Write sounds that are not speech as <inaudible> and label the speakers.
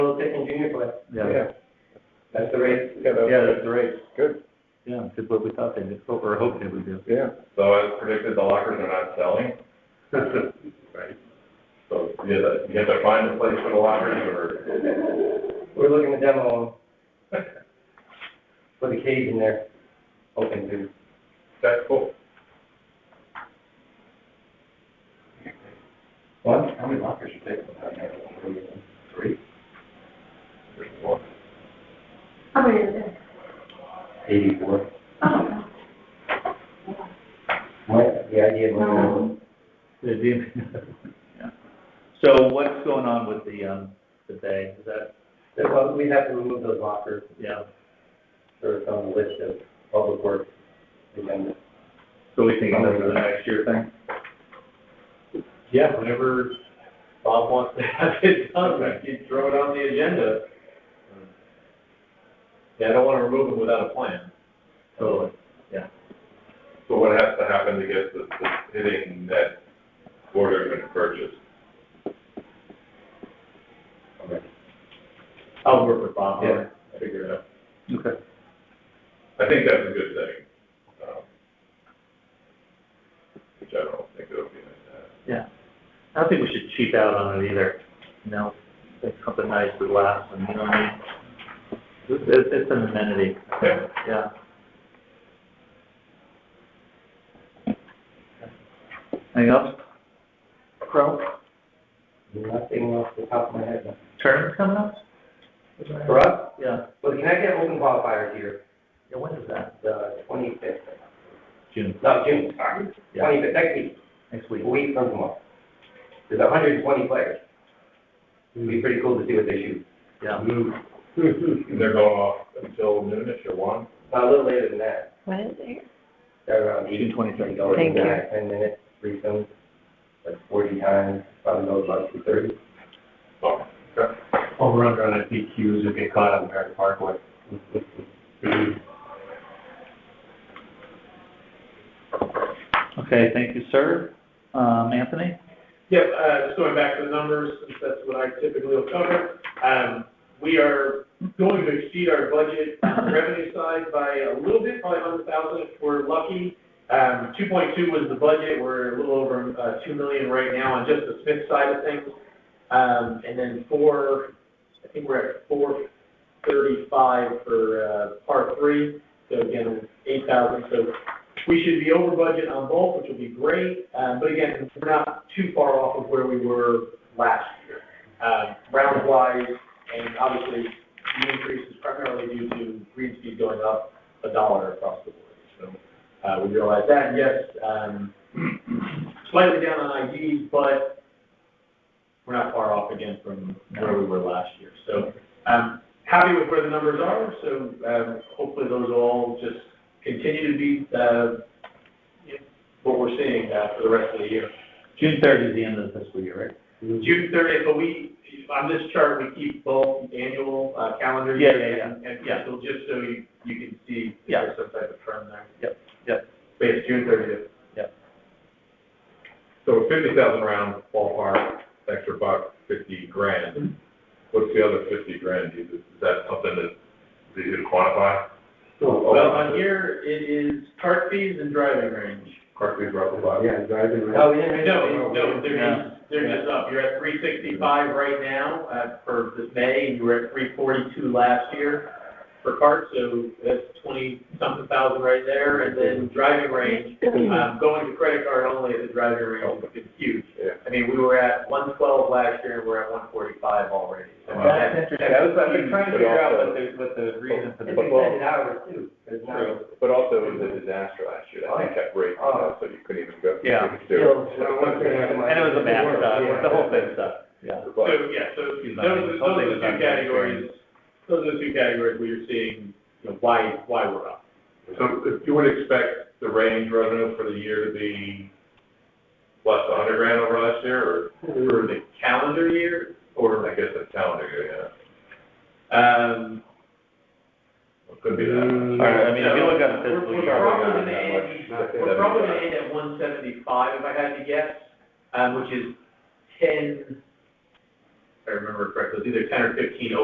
Speaker 1: input.
Speaker 2: Yeah,
Speaker 1: That's the rate.
Speaker 3: Yeah, that's-
Speaker 2: Yeah, that's the rate.
Speaker 3: Good,
Speaker 2: yeah, it's what we thought they did, what we we're hoping it would do.
Speaker 3: yeah.
Speaker 4: So as predicted, the lockers are not selling, so you have to, you have to find a place for the lockers or,
Speaker 1: <laughs> We're looking to demo them. Put a cage in there, hoping to.
Speaker 4: that's cool.
Speaker 1: What? How many lockers you taking?
Speaker 4: Three. There's one.
Speaker 5: Oh,
Speaker 6: How many is it?
Speaker 1: Eighty-four.
Speaker 6: Oh,
Speaker 1: What, the idea of
Speaker 6: No.
Speaker 2: They do. Yeah. So what's going on with the, um, the bay, is that,
Speaker 1: Well, we'd have to remove those lockers,
Speaker 2: yeah,
Speaker 1: or it's on the list of public works agenda.
Speaker 2: so we think that's the next year thing?
Speaker 7: Yeah, whenever Bob wants to have it done,
Speaker 4: Okay.
Speaker 7: you throw it on the agenda. Yeah, I don't wanna remove them without a plan.
Speaker 2: Totally.
Speaker 4: So what has to happen to get the, the hitting that order going to purchase?
Speaker 7: I'll work with Bob,
Speaker 4: Yeah.
Speaker 7: I'll figure it out.
Speaker 2: Okay.
Speaker 4: I think that's a good thing, um, which I don't think it'll be like that.
Speaker 2: Yeah, I don't think we should cheap out on it either, you know, think something nice that lasts, and you know what I mean? It's, it's- it's an amenity,
Speaker 4: Yeah.
Speaker 2: yeah. Anything else? Crow,
Speaker 1: Nothing off the top of my head.
Speaker 2: tournament's coming up?
Speaker 1: For us,
Speaker 2: Yeah,
Speaker 1: well, can I get open qualifiers here,
Speaker 2: yeah, when is that?
Speaker 1: the twenty-fifth,
Speaker 2: June,
Speaker 1: no, June, sorry,
Speaker 2: Yeah.
Speaker 1: twenty-fifth, next week.
Speaker 2: next week.
Speaker 1: a week from tomorrow. There's hundred and twenty players. It'd be pretty cool to see what they shoot.
Speaker 2: Yeah,
Speaker 4: And they're going off until noonish or one?
Speaker 1: A little later than that,
Speaker 5: What is it?
Speaker 1: they're around eight.
Speaker 2: June 23rd.
Speaker 1: Go
Speaker 5: Thank you.
Speaker 1: nine, Ten minutes, three films, like forty times, probably goes about two thirty.
Speaker 4: Oh, okay.
Speaker 7: Over under on FDQs if get caught on Merritt Parkway.
Speaker 2: okay, thank you, sir. Um, Anthony?
Speaker 7: Yep, uh, just going back to the numbers, since that's what I typically will cover, um, we are going to exceed our budget on the revenue side by a little bit, probably hundred thousand if we're lucky. Um, two point two was the budget, we're a little over, uh, two million right now on just the Smith side of things. Um, and then four, I think we're at four thirty-five for, uh, part three, so again, eight thousand, so we should be over budget on both, which will be great, uh, but again, we're not too far off of where we were last year. Uh, round wise, and obviously, the increase is primarily due to green speed going up a dollar across the board. So, uh, we realize that, and yes, um, <clears throat> slightly down on IDs, but we're not far off again from where we were last year. So, um, happy with where the numbers are, so, um, hopefully those will all just continue to be, uh, you know, what we're seeing, uh, for the rest of the year.
Speaker 2: June third is the end of the fiscal year, right?
Speaker 7: June thirtieth, but we, on this chart, we keep both annual, uh, calendar
Speaker 2: Yeah,
Speaker 7: year
Speaker 2: yeah, yeah.
Speaker 7: and, and fiscal, just so you, you can see if
Speaker 2: Yeah.
Speaker 7: there's some type of trend there.
Speaker 2: Yep, yep.
Speaker 7: But it's June thirtieth.
Speaker 4: So fifty thousand round ballpark, extra buck, fifty grand. What's the other fifty grand? Is, is that something that, that you can quantify?
Speaker 1: Oh,
Speaker 7: Well, on here, it is cart fees and driving range.
Speaker 4: Correct me if I'm wrong.
Speaker 3: Yeah, driving, right?
Speaker 1: No, we didn't.
Speaker 7: No, no, they're
Speaker 2: Yeah.
Speaker 7: just, they're just up. You're at three sixty-five right now, uh, for this May, and you were at three forty-two last year for cart, so that's twenty-something thousand right there, and then driving range,
Speaker 4: Hmm.
Speaker 7: um, going to credit card only, the driving range is huge.
Speaker 4: Yeah.
Speaker 7: I mean, we were at one twelve last year, and we're at one forty-five already. So
Speaker 4: Wow.
Speaker 7: that-
Speaker 1: I was,
Speaker 4: I've been trying to figure out what
Speaker 1: the, what the
Speaker 4: reason for the-
Speaker 1: It's extended hours too, it's not,
Speaker 4: True, but also it was a disaster last year, that thing kept breaking, uh, so you couldn't even go.
Speaker 2: Yeah.
Speaker 4: couldn't do
Speaker 1: still,
Speaker 4: it.
Speaker 2: And it was a math, uh, the whole thing sucked, yeah.
Speaker 7: So,
Speaker 4: But-
Speaker 7: yeah, so those,
Speaker 2: Excuse me,
Speaker 7: those
Speaker 2: something
Speaker 7: are the
Speaker 2: was not
Speaker 7: two categories, those are the two categories where you're seeing, you know, why, why we're up.
Speaker 4: So if you would expect the range revenue for the year to be less than a hundred grand over last year,
Speaker 7: For the calendar year,
Speaker 4: or, or I guess that's calendar year,
Speaker 7: um.
Speaker 4: yeah, it could be that.
Speaker 2: All right, I mean, if you look at the
Speaker 7: We're-
Speaker 2: fiscal
Speaker 7: we're
Speaker 2: year,
Speaker 4: probably
Speaker 7: probably
Speaker 4: not
Speaker 7: gonna
Speaker 4: that
Speaker 7: end-
Speaker 4: much. Not
Speaker 7: We're
Speaker 4: that
Speaker 7: probably
Speaker 4: much.
Speaker 7: gonna end at one seventy-five if I had to guess, um, which is ten, if I remember correctly, it was either ten or fifteen